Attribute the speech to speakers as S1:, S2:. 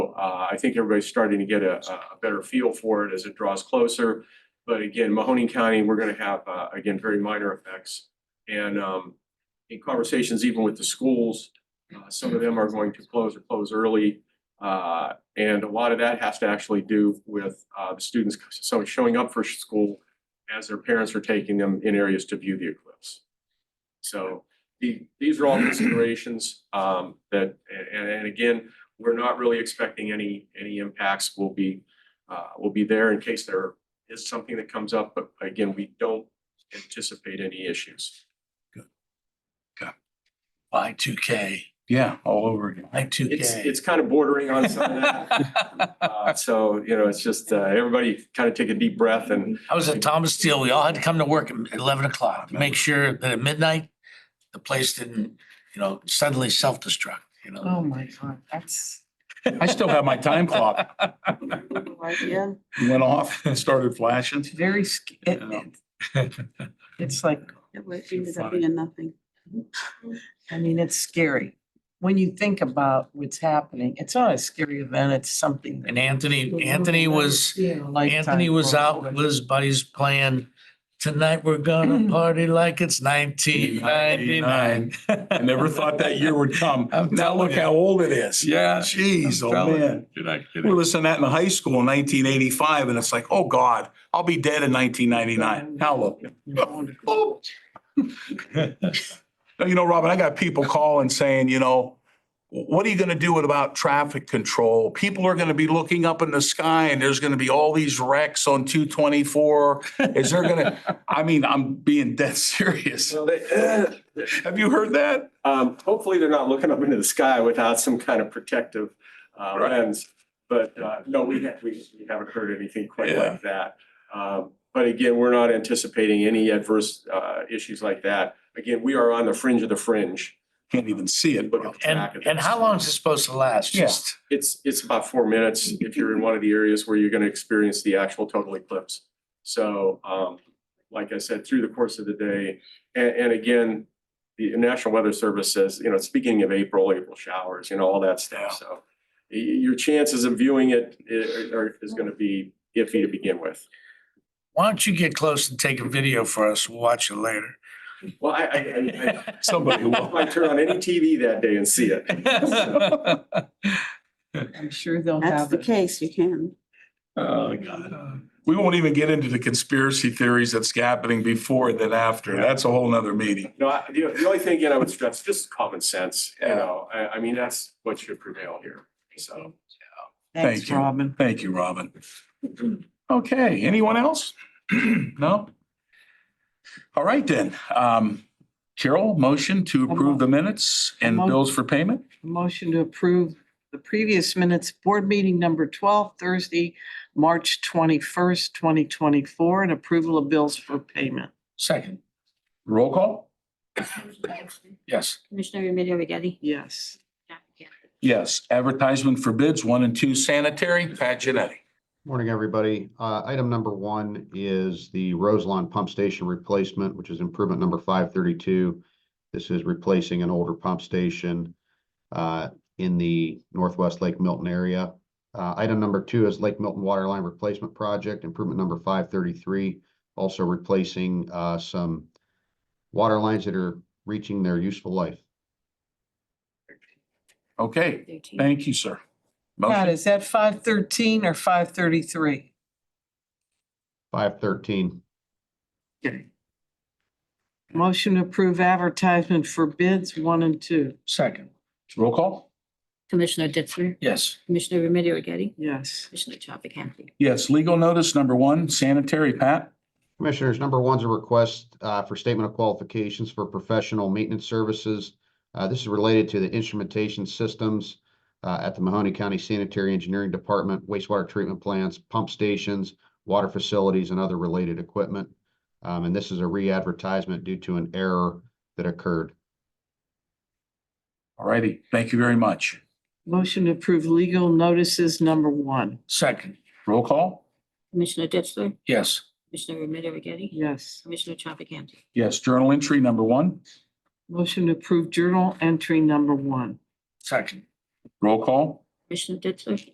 S1: Uh, I think everybody's starting to get a, a better feel for it as it draws closer. But again, Mahoning County, we're gonna have, uh, again, very minor effects. And, um, in conversations even with the schools, uh, some of them are going to close or close early. Uh, and a lot of that has to actually do with, uh, the students, so showing up for school as their parents are taking them in areas to view the eclipse. So the, these are all considerations, um, that, and, and again, we're not really expecting any, any impacts will be, uh, will be there in case there is something that comes up, but again, we don't anticipate any issues.
S2: I two K, yeah, all over again. I two
S1: It's,
S2: K.
S1: it's kind of bordering on some of that. Uh, So, you know, it's just, uh, everybody kind of take a deep breath and
S2: I was at Thomas Steel. We all had to come to work at eleven o'clock to make sure that at midnight, the place didn't, you know, suddenly self-destruct, you know?
S3: Oh, my God, that's,
S4: I still have my time clock.
S3: yeah,
S4: Went off and started flashing.
S3: it's very, sc- it,
S4: Yeah.
S3: it- it's like,
S5: It would ended
S4: funny.
S5: up being nothing.
S3: I mean, it's scary. When you think about what's happening, it's not a scary event, it's something. that
S2: And Anthony,
S3: you'll
S2: Anthony
S3: never
S2: was,
S3: see in a lifetime
S2: Anthony was out
S3: probably.
S2: with his buddies playing. Tonight we're gonna party like it's nineteen ninety-nine.
S4: I never thought that year would come.
S2: I'm
S4: Now
S2: telling
S4: look
S2: you.
S4: how old it is.
S2: Yeah.
S4: Jeez,
S2: I'm
S4: oh
S2: telling
S4: man.
S6: You're not
S4: We
S6: kidding.
S4: listened to that in high school in nineteen eighty-five and it's like, oh God, I'll be dead in nineteen ninety-nine. How old? Oh, No, You know, Robin, I got people calling saying, you know, what are you gonna do about traffic control? People are gonna be looking up in the sky and there's gonna be all these wrecks on two twenty-four. Is there gonna, I mean, I'm being dead serious.
S1: so they,
S4: Have you heard that?
S1: Um, hopefully they're not looking up into the sky without some kind of protective, uh,
S4: Right.
S1: lens. But, uh, no, we, ha- we we haven't heard anything quite
S4: Yeah.
S1: like that. Um, but again, we're not anticipating any adverse, uh, issues like that. Again, we are on the fringe of the fringe.
S4: Can't even see it.
S1: Look at the track
S2: And,
S1: of
S2: and
S1: this.
S2: how long is it supposed to last?
S4: Yeah.
S2: Just
S1: It's, it's about four minutes if you're in one of the areas where you're gonna experience the actual total eclipse. So, um, like I said, through the course of the day, and, and again, the National Weather Service says, you know, it's beginning of April, April showers, you know, all that
S4: Yeah.
S1: stuff, so. y- your chances of viewing it i- are, is gonna be iffy to begin with.
S2: Why don't you get close and take a video for us? We'll watch it later.
S1: Well, I, I, I,
S4: Somebody
S1: I
S4: will.
S1: might turn on any TV that day and see it.
S3: I'm sure they'll
S5: That's
S3: have
S5: the
S3: it.
S5: case, you can.
S4: Oh, God. We won't even get into the conspiracy theories that's happening before and then after. That's a whole nother meeting.
S1: No, I- the, the only thing, again, I would stress, just common sense, you
S4: Yeah.
S1: know, I, I mean, that's what should prevail here, so.
S3: Thanks,
S4: Thank you.
S3: Robin.
S4: Thank you, Robin. Okay, anyone else? No? All right then. Um, Carol, motion to approve the minutes and bills for payment?
S3: A Motion to approve the previous minutes, board meeting number twelve, Thursday, March twenty-first, twenty twenty-four, and approval of bills for payment.
S2: Second,
S4: Roll call?
S2: yes.
S7: Commissioner Remedy Agati?
S3: Yes.
S4: Yes. Advertisement for bids, one and two sanitary, Pat Genetti.
S8: Morning, everybody. Uh, item number one is the Roselawn Pump Station replacement, which is improvement number five thirty-two. This is replacing an older pump station uh, in the Northwest Lake Milton area. Uh, item number two is Lake Milton Water Line Replacement Project, improvement number five thirty-three. Also replacing uh, some water lines that are reaching their useful life.
S4: Okay, thank you, sir.
S3: God,
S4: Motion.
S3: is that five thirteen or five thirty-three?
S8: Five thirteen.
S3: Motion to approve advertisement for bids one and two.
S2: Second,
S4: Roll call?
S7: Commissioner Ditzler?
S2: yes.
S7: Commissioner Remedy Agati?
S3: Yes.
S7: Commissioner Chafficanty?
S4: Yes, legal notice number one, sanitary, Pat.
S8: Commissioners, number one's a request uh, for statement of qualifications for professional maintenance services. Uh, This is related to the instrumentation systems uh, at the Mahoney County Sanitary Engineering Department, wastewater treatment plants, pump stations, water facilities, and other related equipment. Um, And this is a re-advertisement due to an error that occurred.
S4: All righty, thank you very much.
S3: Motion to approve legal notices number one.
S2: Second,
S4: Roll call?
S7: Commissioner Ditzler?
S2: yes.
S7: Commissioner Remedy Agati?
S3: Yes.
S7: Commissioner Chafficanty?
S4: Yes, journal entry number one.
S3: Motion to approve journal entry number one.
S2: Second,
S4: Roll call?
S7: Commissioner Ditzler?